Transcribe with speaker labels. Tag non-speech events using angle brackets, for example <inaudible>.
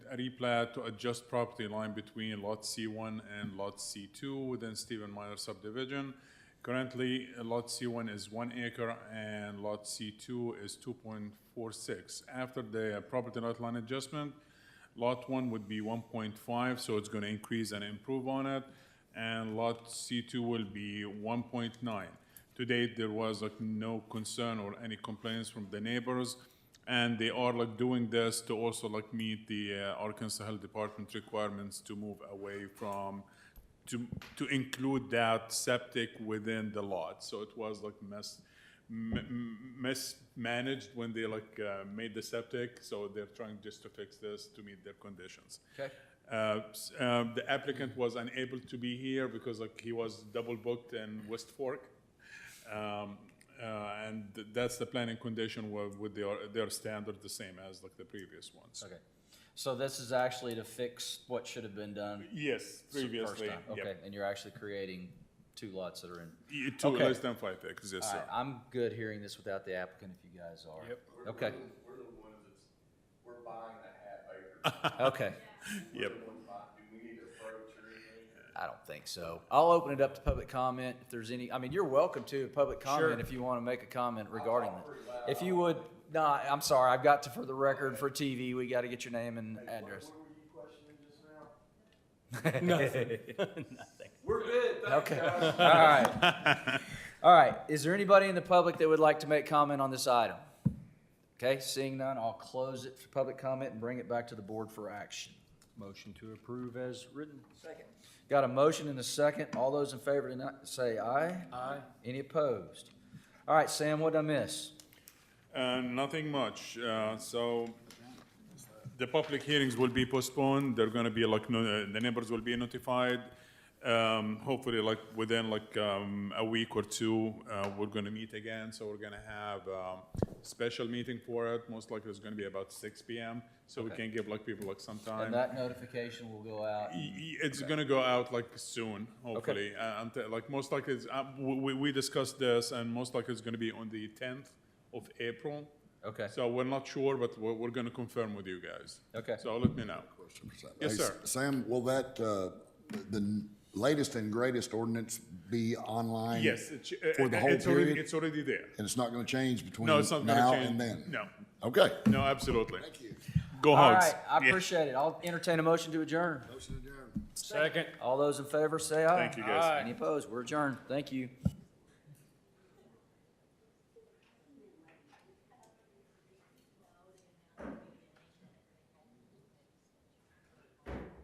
Speaker 1: a replat to adjust property line between lot C1 and lot C2 within Stephen Minor subdivision. Currently, lot C1 is one acre and lot C2 is 2.46. After the property lot line adjustment, lot 1 would be 1.5, so it's going to increase and improve on it, and lot C2 will be 1.9. To date, there was like no concern or any complaints from the neighbors, and they are like doing this to also like meet the uh, Arkansas Health Department requirements to move away from, to, to include that septic within the lot. So it was like mess, m- m- mismanaged when they like uh, made the septic, so they're trying just to fix this to meet their conditions.
Speaker 2: Okay.
Speaker 1: Uh, s- uh, The applicant was unable to be here because like he was double booked in West Fork. Um, uh, And th- that's the planning condition wa- with their, their standard the same as like the previous ones.
Speaker 2: Okay. So this is actually to fix what should have been done
Speaker 1: Yes,
Speaker 2: s- first
Speaker 1: previously,
Speaker 2: time. Okay,
Speaker 1: yep.
Speaker 2: and you're actually creating two lots that are in.
Speaker 1: Y- Two,
Speaker 2: Okay.
Speaker 1: less than five acres, yes,
Speaker 2: All right,
Speaker 1: sir.
Speaker 2: I'm good hearing this without the applicant if you guys are.
Speaker 1: Yep.
Speaker 2: Okay,
Speaker 3: We're the ones that's, we're buying the half acre.
Speaker 2: okay.
Speaker 1: Yep.
Speaker 3: We're the ones buying- Do we need to approach or anything?
Speaker 2: I don't think so. I'll open it up to public comment if there's any, I mean, you're welcome to public comment if you want to make a comment regarding that. If you would, no, I'm sorry, I've got to, for the record, for TV, we got to get your name and address.
Speaker 3: What were you questioning just now?
Speaker 2: <laughs> We're good, Okay, <laughs> all right. All right, is there anybody in the public that would like to make comment on this item? Okay, seeing none, I'll close it for public comment and bring it back to the board for action.
Speaker 4: Motion to approve as written.
Speaker 2: Got a motion and a second. All those in favor tonight, say aye. Aye. Any opposed? All right, Sam, what did I miss?
Speaker 1: Uh, Nothing much. Uh, So the public hearings will be postponed. They're going to be like, no- uh, the neighbors will be notified. Um, Hopefully, like, within like um, a week or two, uh, we're going to meet again. So we're going to have a special meeting for it. Most likely, it's going to be about six PM. So we
Speaker 2: Okay.
Speaker 1: can give like people like some time.
Speaker 2: And that notification will go out.
Speaker 1: Y- y- It's gonna go out like soon, hopefully. Uh, until- like most likely, it's, uh, we, we- we discussed this and most likely it's gonna be on the tenth of April.
Speaker 2: Okay.
Speaker 1: So we're not sure, but we're, we're gonna confirm with you guys.
Speaker 2: Okay.
Speaker 1: So let me know. Yes,
Speaker 5: Hey,
Speaker 1: sir.
Speaker 5: Sam, will that, uh, the latest and greatest ordinance be online?
Speaker 1: Yes, it's, uh,
Speaker 5: For the whole
Speaker 1: it's already,
Speaker 5: period?
Speaker 1: it's already there.
Speaker 5: And it's not going to change between
Speaker 1: No, it's not gonna
Speaker 5: now
Speaker 1: change.
Speaker 5: and then?
Speaker 1: No,
Speaker 5: Okay.
Speaker 1: no, absolutely.
Speaker 5: Thank you.
Speaker 1: Go
Speaker 2: All
Speaker 1: Hogs.
Speaker 2: right, I
Speaker 1: Yeah.
Speaker 2: appreciate it. I'll entertain a motion to adjourn.
Speaker 5: Motion adjourned.
Speaker 4: Second.
Speaker 2: All those in favor, say aye.
Speaker 1: Thank you, guys.
Speaker 2: Any opposed? We're adjourned. Thank you.